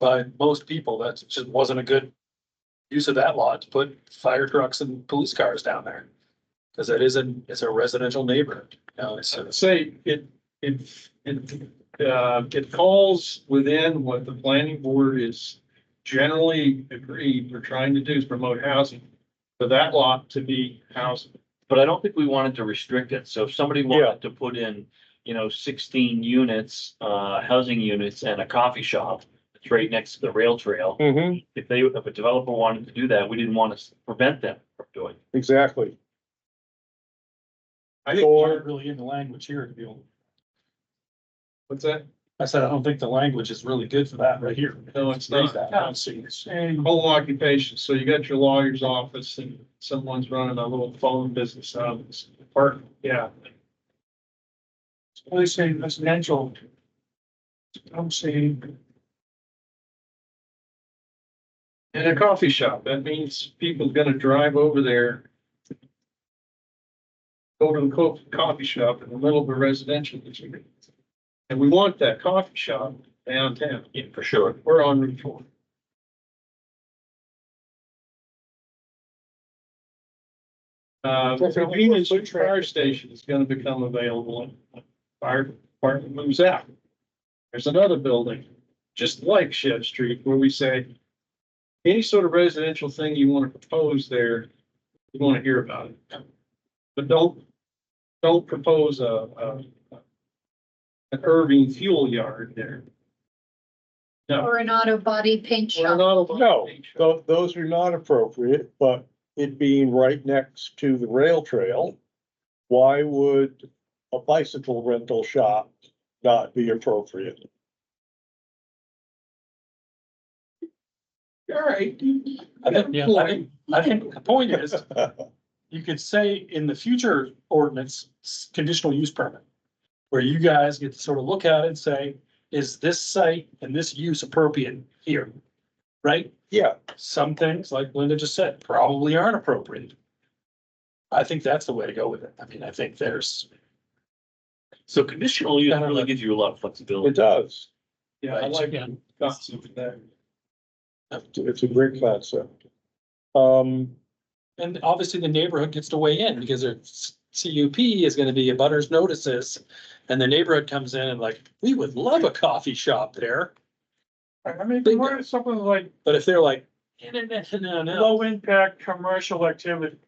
by most people, that just wasn't a good use of that lot to put fire trucks and police cars down there. Cause that is an, it's a residential neighborhood, you know, it's, I'd say it, it, it, uh, it falls within what the planning board is generally agreed we're trying to do is promote housing. For that lot to be housing. But I don't think we wanted to restrict it. So if somebody wanted to put in, you know, sixteen units, uh, housing units and a coffee shop. It's right next to the rail trail. Mm-hmm, If they, if a developer wanted to do that, we didn't want to prevent them from doing. it. exactly. I it's not think, really in the language here to be able. what's that? I said, I don't think the language is really good for that right here. No, it's Raise not. that, I don't see this. Whole occupation, so you got your lawyer's office and someone's running a little phone business out of this apartment, yeah. They're saying residential. I'm saying. And a coffee shop, that means people gonna drive over there. Go to the co- coffee shop in the middle of a residential district. And we want that coffee shop downtown, Yeah, for sure. we're on Route four. Uh, the convenience fire station is gonna become available and fire department moves out. There's another building, just like Shed Street, where we say, any sort of residential thing you want to propose there, you want to hear about it. But don't, don't propose a, a, an Irving fuel yard there. Or an auto body paint We're shop. not allowed to No, make sure. tho- those are not appropriate, but it being right next to the rail trail, why would a bicycle rental shop not be appropriate? All right. I think, yeah, I think, I think the point is, you could say in the future ordinance, s- conditional use permit. Where you guys get to sort of look at it and say, is this site and this use appropriate here? Right? Yeah, Some things, like Linda just said, probably aren't appropriate. I think that's the way to go with it. I mean, I think there's, So conditional use really gives you a lot of it flexibility. does. Yeah, I like that uh, concept of that. It's a great concept. Um, and obviously the neighborhood gets to weigh in because their s- CUP is gonna be a butters notices. And the neighborhood comes in and like, we would love a coffee shop there. I mean, Bingo. what is something like But if they're like, no, no, no, no, low impact commercial activity?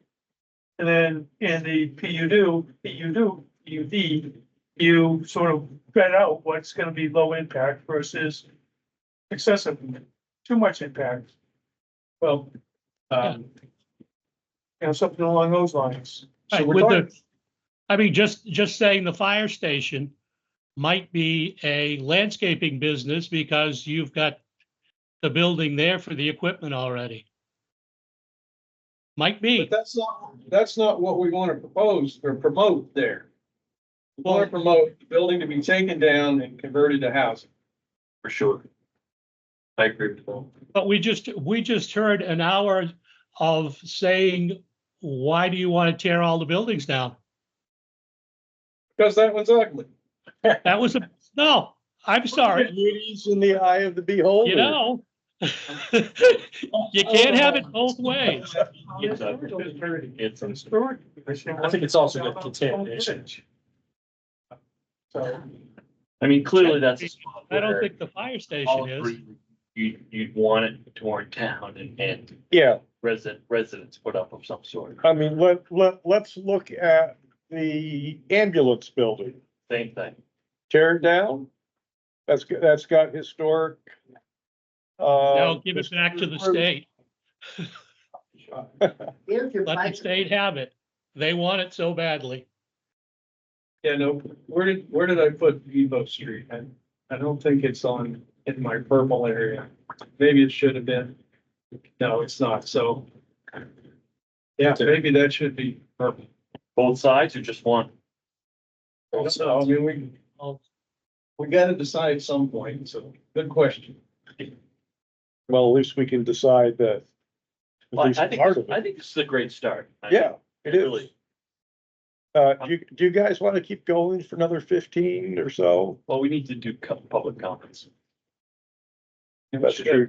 And then in the PUD, PUD, PUD, you sort of bet out what's gonna be low impact versus excessive, too much impact. Well, Um, you know, something along those lines. Right, So we're with the- talking- I mean, just, just saying the fire station might be a landscaping business because you've got the building there for the equipment already. Might But be, that's not, that's not what we want to propose or promote there. We want to promote the building to be taken down and converted to housing. For sure. I agree with that. but we just, we just heard an hour of saying, why do you want to tear all the buildings down? Because that one's ugly. That was a, no, I'm sorry, Beauty's in the eye of the beholder. you know? You can't have it both ways. It's a- it's uh, a- I think it's also good contamination. So, I mean, clearly that's. a spot I don't where think the fire all station is. three- You, you'd want it torn down and, and Yeah, resident, residents put up of some sort. I mean, let, let, let's look at the ambulance building. Same thing. tear it down. That's, g- that's got historic. uh, No, give it back to the state. Let the state have it. They want it so badly. Yeah, no, where did, where did I put Evo Street? I, I don't think it's on, in my purple area. Maybe it should have been. No, it's not, so. Yeah, maybe that should be purple. Both sides or just one? So, I mean, we, we gotta decide at some point, so, good question. Well, at least we can decide that. At Well, least I think, part of I it. think this is a great start. I- Yeah, it is. Really. Um, Uh, do, you- do you guys want to keep going for another fifteen or so? Well, we need to do co- public comments. That's true.